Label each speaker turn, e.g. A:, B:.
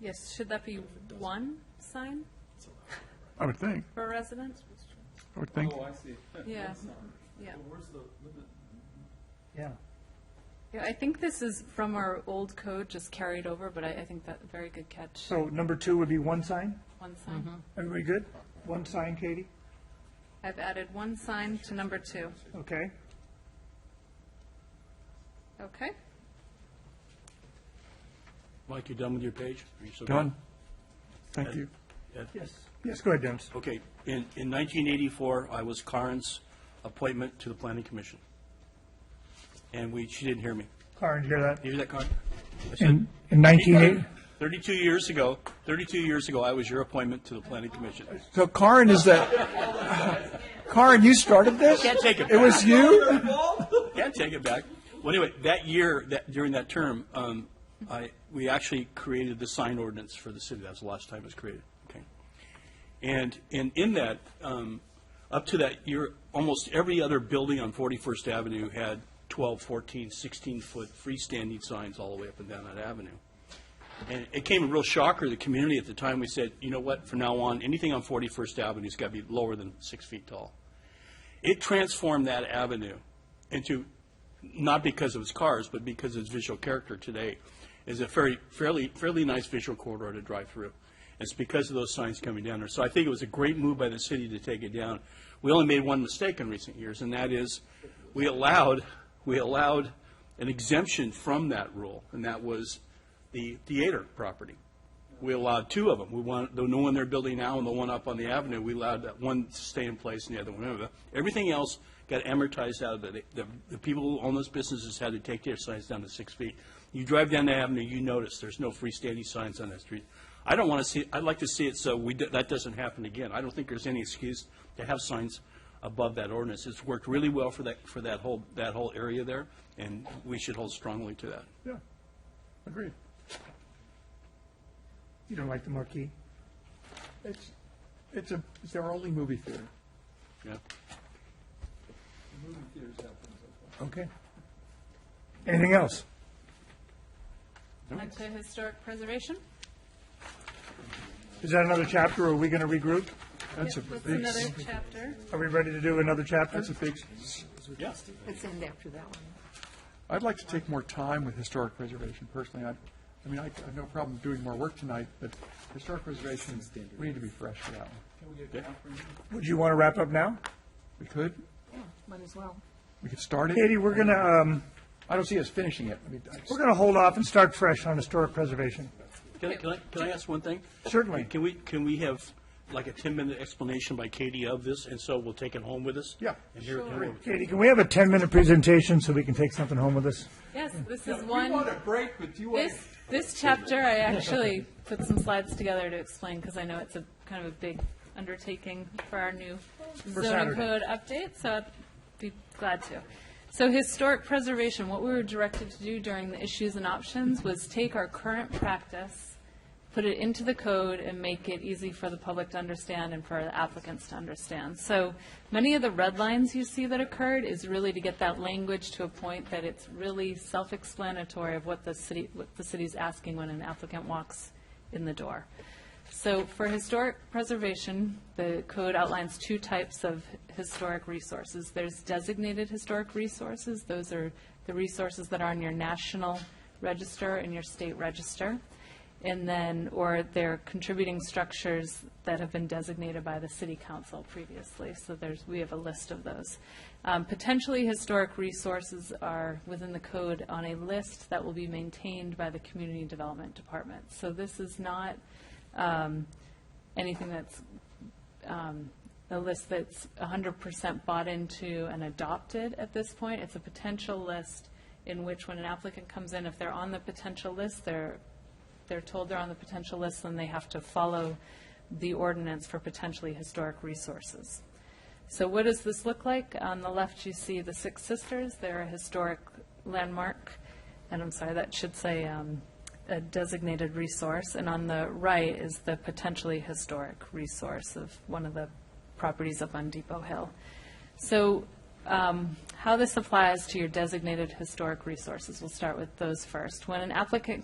A: Yes, should that be one sign
B: I would think,
A: per resident?
B: I would think.
C: Oh, I see.
A: Yeah.
C: One sign.
A: Yeah.
C: Well, Where's the limit?
D: Yeah.
A: Yeah, I think this is from our old code, just carried over, but I, I think that, very good catch,
D: So number two would be one sign?
A: one sign.
D: Everybody good? One sign, Katie?
A: I've added one sign to number two.
D: Okay.
A: Okay,
E: Mike, you done with your page? Are you still going?
B: Done. Thank you.
D: Yes. Yes, go ahead, Dennis.
E: Okay, in, in 1984, I was Karen's appointment to the planning commission. And we, she didn't hear me.
D: Karen, you hear that?
E: You hear that, Karen? I said,
D: In, in nineteen eighty,
E: 32 years ago, 32 years ago, I was your appointment to the planning commission.
B: So Karen is that, Karen, you started this?
E: Can't take it
B: It
E: back,
B: was you?
E: can't take it back. Well, anyway, that year, that, during that term, um, I, we actually created the sign ordinance for the city. That was the last time it was created, okay? And, and in that, um, up to that year, almost every other building on 41st Avenue had 12, 14, 16-foot freestanding signs all the way up and down that avenue. And it came a real shocker to the community at the time. We said, you know what, from now on, anything on 41st Avenue's got to be lower than six feet tall. It transformed that avenue into, not because of its cars, but because of its visual character today, is a very, fairly, fairly nice visual corridor to drive through. It's because of those signs coming down there. So I think it was a great move by the city to take it down. We only made one mistake in recent years, and that is, we allowed, we allowed an exemption from that rule, and that was the theater property. We allowed two of them. We want, the one they're building now and the one up on the avenue, we allowed that one to stay in place and the other one. over. Everything else got amortized out of it. The, the people who own those businesses had to take their signs down to six feet. You drive down the avenue, you notice there's no freestanding signs on that street. I don't want to see, I'd like to see it so we, do- that doesn't happen again. I don't think there's any excuse to have signs above that ordinance. It's worked really well for that, for that whole, that whole area there, and we should hold strongly to that.
B: Yeah, agreed.
D: you don't like the marquee?
B: It's, it's a, it's our only movie theater.
E: Yeah.
C: The movie theaters have things like that.
D: Okay. Anything else?
A: on to historic preservation.
D: Is that another chapter, or are we gonna regroup?
B: That's a
A: That's
B: big,
A: another chapter.
D: Are we ready to do another chapter?
B: that's a big,
E: Yeah.
F: It's in after that one.
B: I'd like to take more time with historic preservation personally. I, I mean, I I have no problem doing more work tonight, but historic preservation, we need to be fresh for that one.
C: Can we get a comprehensive?
D: Would you wanna wrap up now?
B: We could,
F: Might as well.
B: we could start it.
D: Katie, we're gonna, um,
B: I don't see us finishing it. I mean, I-
D: we're gonna hold off and start fresh on historic preservation.
E: Can I, can I, can I ask one thing?
D: Certainly.
E: Can we, can we have like a ten-minute explanation by Katie of this, and so we'll take it home with us?
B: Yeah.
E: And hear it- hear it.
D: Katie, can we have a ten-minute presentation so we can take something home with us?
A: Yes, this is
C: We want
A: one,
C: a break, but you want,
A: this, this chapter, I actually put some slides together to explain, because I know it's a kind of a big undertaking for our new zoning
D: Saturday.
A: code update, so I'd be glad to. So historic preservation, what we were directed to do during the issues and options was take our current practice, put it into the code and make it easy for the public to understand and for the applicants to understand. So many of the red lines you see that occurred is really to get that language to a point that it's really self-explanatory of what the city, what the city's asking when an applicant walks in the door. So for historic preservation, the code outlines two types of historic resources. There's designated historic resources. Those are the resources that are on your national register and your state register. And then, or they're contributing structures that have been designated by the city council previously. So there's, we have a list of those. Um, Potentially historic resources are within the code on a list that will be maintained by the community development department. So this is not um, anything that's, um, a list that's 100% bought into and adopted at this point. It's a potential list in which when an applicant comes in, if they're on the potential list, they're, they're told they're on the potential list, then they have to follow the ordinance for potentially historic resources. So what does this look like? On the left, you see the Six Sisters. They're a historic landmark, and I'm sorry, that should say um, a designated resource. And on the right is the potentially historic resource of one of the properties up on Depot Hill. So um, how this applies to your designated historic resources, we'll start with those first. When an applicant